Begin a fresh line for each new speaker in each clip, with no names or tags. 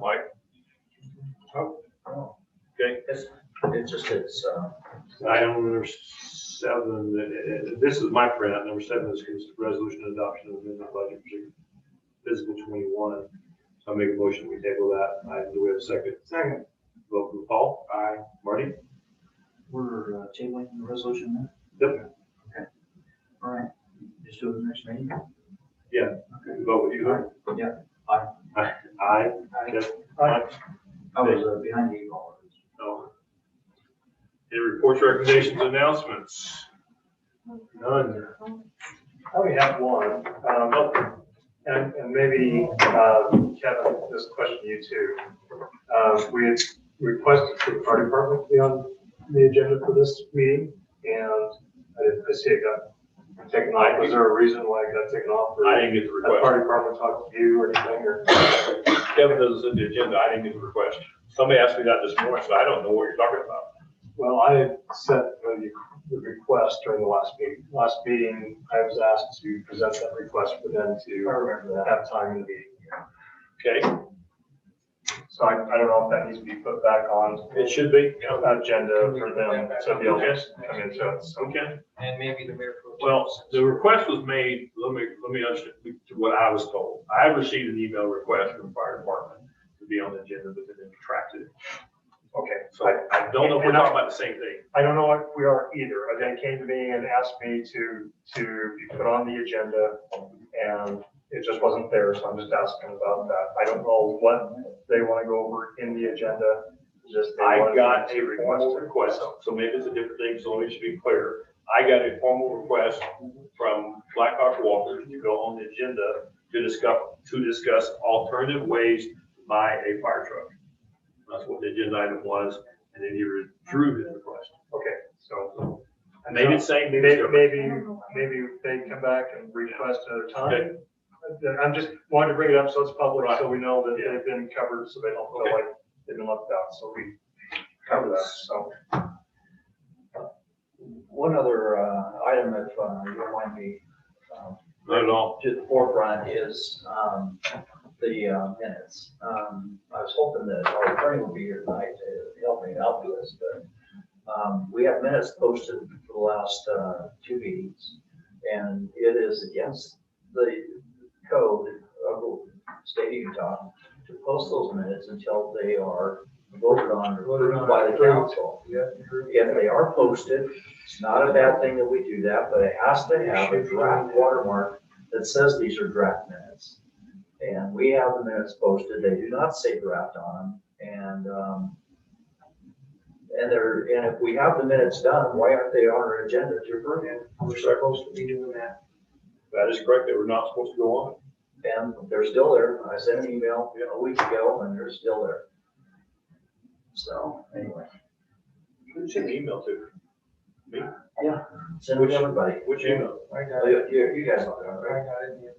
Mike? Oh, Okay,
It's, it's just, it's, uh,
item number seven, uh, uh, this is my printout, number seven is cons- resolution adoption of amendment budget for fiscal twenty-one. So I make a motion, we table that, I, do we have a second?
Second.
Vote from Paul? Aye. Marty?
we're uh, tabling the resolution now?
Yep.
Okay. All right, just do it next meeting.
Vote with you?
Yeah.
Aye. Aye. Yes. Aye.
I was uh, behind you all.
No. Any reports, recommendations, announcements? None.
I only have one, um, and, and maybe, uh, Kevin, this question to you too. Uh, we had requested for the fire department to be on the agenda for this meeting, and I didn't, I see it got taken off. Was there a reason why it got taken off? or
I didn't get the
Had
request.
fire department talked to you or anything, or?
Kevin doesn't send the agenda, I didn't get the request. Somebody asked me that this morning, so I don't know what you're talking about.
Well, I had sent the the request during the last meeting. Last meeting, I was asked to present that request for them to have time in the meeting.
Okay,
So I, I don't know if that needs to be put back on
it should be, yeah,
the agenda for them, so they'll just come in, so it's,
okay.
And maybe the mayor. pro tem
Well,
says-
the request was made, let me, let me understand what I was told. I received an email request from the fire department to be on the agenda, but then they retracted it.
okay.
So I I don't know if we're talking about the same thing.
I don't know if we are either. But They came to me and asked me to, to be put on the agenda and it just wasn't there, so I'm just asking about that. I don't know what they want to go over in the agenda, just. they
I
wanted
got
to
a formal request, so maybe it's a different thing, so let me just be clear. I got a formal request from Blackhawk Walker to go on the agenda to discuss, to discuss alternative ways to buy a fire truck. That's what the agenda item was, and then he withdrew his request.
Okay, so.
And they didn't say, maybe,
Maybe, maybe, maybe they come back and request another time. uh, I'm just wanting to bring it up so it's public, so we know that they've been covered, so they don't
Okay.
feel like they've been left out, so we cover that, so.
One other uh, item, if uh, you don't mind me, um,
not at all.
to the forefront is um, the uh, minutes. Um, I was hoping that our attorney would be here tonight to help me out with this, but um, we have minutes posted for the last uh, two meetings, and it is against the code of the state of Utah to post those minutes until they are voted on or approved by the council. If they are posted, it's not a bad thing that we do that, but it has to have a draft watermark that says these are draft minutes. And we have the minutes posted, they do not say draft on them, and, um, and they're, and if we have the minutes done, why aren't they on our agenda to approve it? We're supposed to be doing that,
That is correct, they were not supposed to go on.
and they're still there, I sent an email you know, a week ago, and they're still there. So, anyway,
Who'd you send the email to? Me?
send it to everybody,
Which email?
I got it.
you, you you guys know that,
I
right?
got it. yeah.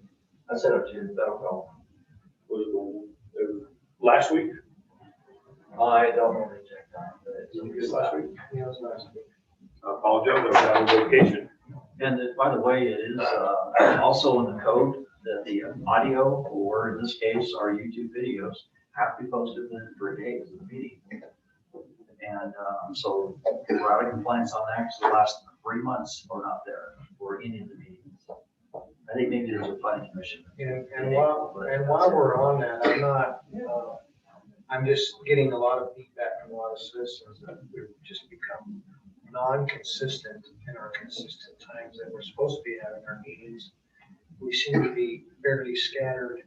I sent it to you, I don't know,
Was it the- it was last week?
I don't know the exact time, but it's.
week.
Yeah, it was last week.
I apologize, I was on vacation.
And it- by the way, it is uh, also in the code that the audio, or in this case, our YouTube videos, have to be posted within three days of the meeting. And um, so we're out of compliance on that, 'cause the last three months are not there, or any of the meetings. I think maybe there's a planning commission.
And, and while, and while we're on that, I'm not, uh, I'm just getting a lot of feedback from a lot of citizens that we've just become non-consistent in our consistent times that we're supposed to be having our meetings. We seem to be fairly scattered,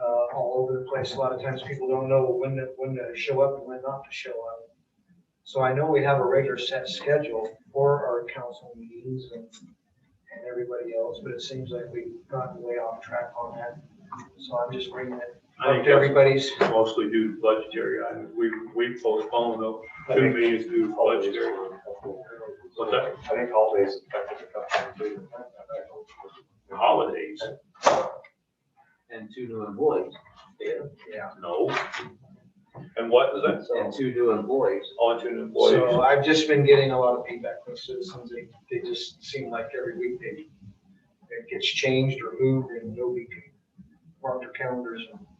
uh, all over the place. A lot of times people don't know when to, when to show up and when not to show up. So I know we have a regular set schedule for our council meetings and and everybody else, but it seems like we've gotten way off track on that. So I'm just bringing it
I
up
think
to
that's
everybody's,
mostly due to budgetary items. We, we postponed those
I
two
think
meetings due to
all days
budgetary.
were helpful.
What's that?
I think all days affected the company too.
Holidays,
and two new employees,
yeah.
no. And what was that?
and two new employees.
On to an employee.
So I've just been getting a lot of feedback from citizens. They, they just seem like every week they, it gets changed or moved and nobody can mark their calendars and